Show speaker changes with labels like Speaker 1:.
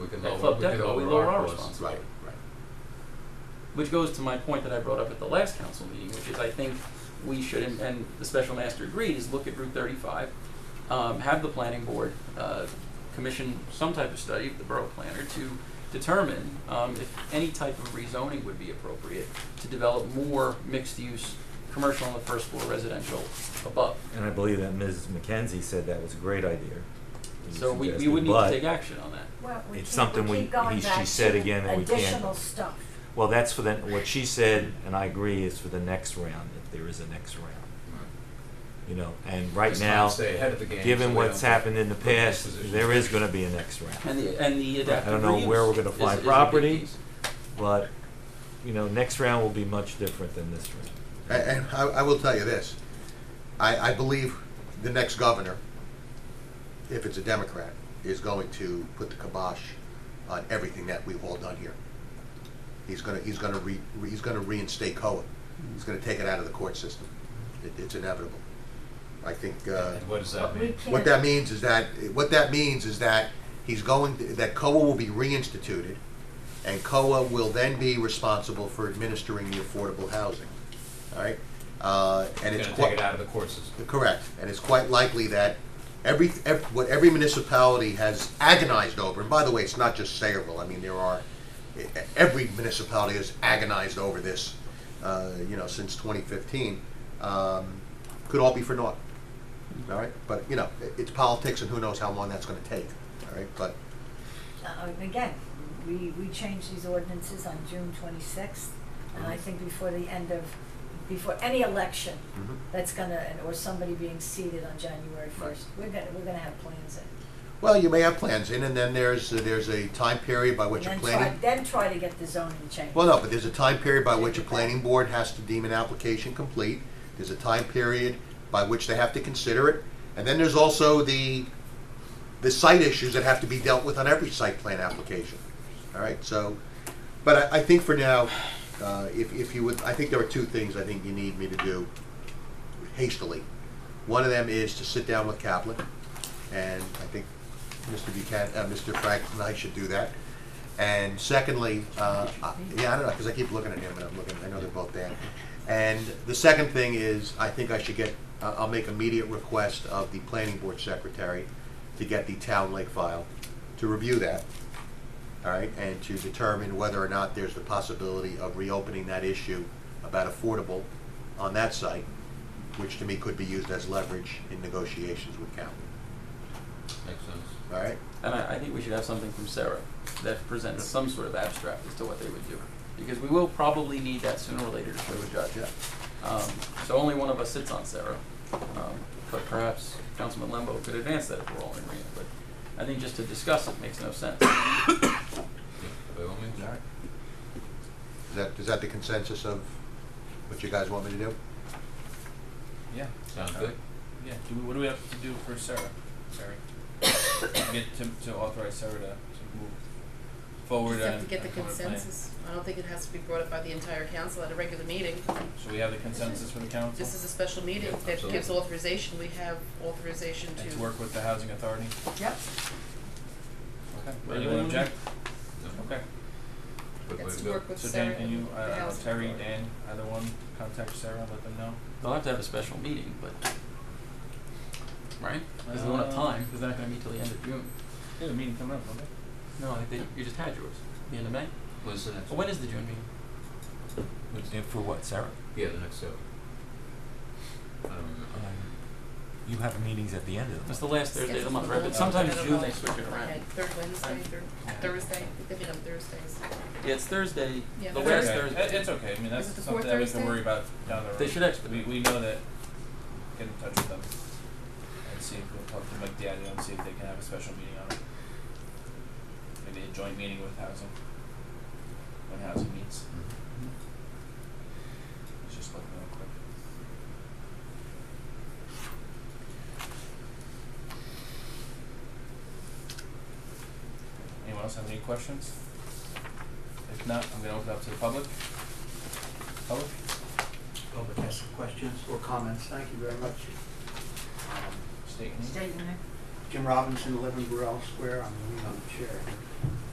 Speaker 1: we could
Speaker 2: That
Speaker 1: lower,
Speaker 2: fucked
Speaker 1: we
Speaker 2: up,
Speaker 1: could
Speaker 2: but we
Speaker 1: lower
Speaker 2: lower
Speaker 1: our
Speaker 2: our
Speaker 1: costs.
Speaker 2: responsibility.
Speaker 3: right.
Speaker 2: Which goes to my point that I brought up at the last council meeting, which is I think we should, and, and the special master agreed, is look at Route thirty-five, um, have the planning board, uh, commission some type of study, the borough planner, to determine, um, if any type of rezoning would be appropriate to develop more mixed-use, commercial on the first floor, residential above.
Speaker 4: And I believe that Ms. McKenzie said that was a great idea. that you
Speaker 2: So we, we
Speaker 4: suggested,
Speaker 2: would need
Speaker 4: but-
Speaker 2: to take action on that.
Speaker 5: Well, we
Speaker 4: It's
Speaker 5: keep-
Speaker 4: something we-
Speaker 5: we keep going
Speaker 4: he- she
Speaker 5: back
Speaker 4: said
Speaker 5: to
Speaker 4: again that we can't-
Speaker 5: Additional stuff.
Speaker 4: Well, that's for the, what she said, and I agree, is for the next round, if there is a next round, you know, and right
Speaker 1: Just trying to
Speaker 4: now,
Speaker 1: stay ahead of the game so
Speaker 4: given
Speaker 1: we
Speaker 4: what's
Speaker 1: don't-
Speaker 4: happened in the
Speaker 1: put in this
Speaker 4: past,
Speaker 1: position.
Speaker 4: there is gonna be a next round.
Speaker 2: And the, and the
Speaker 4: I
Speaker 2: adaptive
Speaker 4: don't know where
Speaker 2: reuse
Speaker 4: we're gonna
Speaker 2: is-
Speaker 4: find
Speaker 2: is a big
Speaker 4: property.
Speaker 2: piece.
Speaker 4: But, you know, next round will be much different than this round.
Speaker 3: And, and I, I will tell you this, I, I believe the next governor, if it's a Democrat, is going to put the kibosh on everything that we've all done here. He's gonna, he's gonna re, re- he's gonna reinstate COA. He's gonna take it out of the court system. It, it's inevitable. I think, uh,
Speaker 1: And what does that
Speaker 5: But we
Speaker 1: mean?
Speaker 5: can't.
Speaker 3: what that means is that, what that means is that he's going, that COA will be reinstituted, and COA will then be responsible for administering the affordable housing, all right? Uh, and
Speaker 1: We're
Speaker 3: it's
Speaker 1: gonna
Speaker 3: quite.
Speaker 1: take it out of the court system.
Speaker 3: Correct, and it's quite likely that every, ev- what every municipality has agonized over, and by the way, it's not just Sayreville, I mean, there are, e- every municipality has agonized over this, uh, you know, since twenty fifteen, um, could all be for naught. All right, but, you know, i- it's politics and who knows how long that's gonna take, all right, but,
Speaker 5: Uh, Again, we, we changed these ordinances on June twenty-sixth, and I
Speaker 3: Mhm.
Speaker 5: think before the end of, before any election,
Speaker 3: Mhm.
Speaker 5: that's gonna, or somebody being seated on January first, we're gonna, we're gonna have plans in.
Speaker 3: well, you may have plans in, and then there's, there's a time period by which you're
Speaker 5: And then
Speaker 3: planning.
Speaker 5: try- Then try to get the zoning changed.
Speaker 3: Well, no, but there's a time period by which a planning board has to deem an application complete. There's a time period by which they have to consider it. And then there's also the, the site issues that have to be dealt with on every site plan application. All right, so, but I, I think for now, uh, if, if you would, I think there are two things I think you need me to do hastily. One of them is to sit down with Kaplan, and I think Mr. Buchanan, uh, Mr. Frank and I should do that. And secondly, uh, I- yeah, I don't know, because I keep looking at him and I'm looking, I know they're both there. And the second thing is, I think I should get, I- I'll make immediate request of the planning board secretary to get the town lake file, to review that, all right, and to determine whether or not there's the possibility of reopening that issue about affordable on that site, which to me could be used as leverage in negotiations with Cal,
Speaker 1: Makes sense.
Speaker 3: all right?
Speaker 2: And I, I think we should have something from Sarah that presents some sort of abstract as to what they would do. Because we will probably need that sooner or later to show a judge.
Speaker 3: Yeah.
Speaker 2: Um, so only one of us sits on Sarah. Um, but perhaps Councilman Lembo could advance that if we're all in agreement, but I think just to discuss it makes no sense.
Speaker 1: Yeah, By all means.
Speaker 3: All right. Is that, is that the consensus of what you guys want me to do?
Speaker 6: Yeah,
Speaker 1: Sounds good.
Speaker 6: yeah. Do we, what do we have to do for Sarah? Sorry. Get to, to authorize Sarah to, to move forward
Speaker 7: Just have
Speaker 6: on-
Speaker 7: to get the
Speaker 6: on her plan.
Speaker 7: consensus. I don't think it has to be brought up by the entire council at a regular meeting.
Speaker 6: So we have the consensus for the council
Speaker 7: This is a special meeting
Speaker 1: Yeah,
Speaker 7: that gives
Speaker 1: absolutely.
Speaker 7: authorization. We have authorization
Speaker 6: and to work with the housing authority.
Speaker 5: Yep.
Speaker 6: Okay. Anyone object?
Speaker 1: No,
Speaker 6: Okay.
Speaker 1: good way
Speaker 7: It's
Speaker 1: to
Speaker 7: to
Speaker 1: go.
Speaker 7: work with
Speaker 6: So
Speaker 7: Sarah
Speaker 6: Dan, can
Speaker 7: and
Speaker 6: you,
Speaker 7: the
Speaker 6: uh,
Speaker 7: housing
Speaker 6: Terry,
Speaker 7: authority.
Speaker 6: Dan, either one, contact Sarah, let them know.
Speaker 2: They'll have to have a special meeting, but, right? Because they won't have time, because they're not gonna meet till the end of June.
Speaker 6: Yeah, the meeting coming up, okay?
Speaker 2: No, I think you just had yours, the end of May.
Speaker 1: When's the next?
Speaker 2: Well, when is the June meeting?
Speaker 1: when's-
Speaker 4: And for what, Sarah?
Speaker 1: Yeah, the next sale. I don't remember.
Speaker 4: Um, You have meetings at the end of the
Speaker 2: It's
Speaker 4: month.
Speaker 2: the last Thursday of the month, right? But
Speaker 7: Schedule
Speaker 2: sometimes
Speaker 7: for the
Speaker 2: June they
Speaker 7: month.
Speaker 2: switch it around.
Speaker 7: Okay, third Wednesday, third Thursday, they meet on Thursdays.
Speaker 2: Yeah, it's Thursday, the
Speaker 7: Yeah,
Speaker 6: It's
Speaker 2: last
Speaker 6: okay.
Speaker 2: Thursday.
Speaker 6: It- It's okay, I mean, that's
Speaker 7: it the
Speaker 6: something
Speaker 7: fourth
Speaker 6: that we can
Speaker 7: Thursday?
Speaker 6: worry about down the road.
Speaker 2: They should
Speaker 6: We,
Speaker 2: expedite.
Speaker 6: we know that, get in touch with them and see if we'll talk to Mike Diadio and see if they can have a special meeting on it. Maybe a joint meeting with housing, when housing meets. Let's just look real quick. Anyone else have any questions? If not, I'm gonna open it up to the public. Public?
Speaker 8: public has some questions or comments, thank you very much. Um,
Speaker 6: State your name.
Speaker 5: State your name.
Speaker 8: Jim Robinson, eleven Burrell Square, I'm the lead on the chair.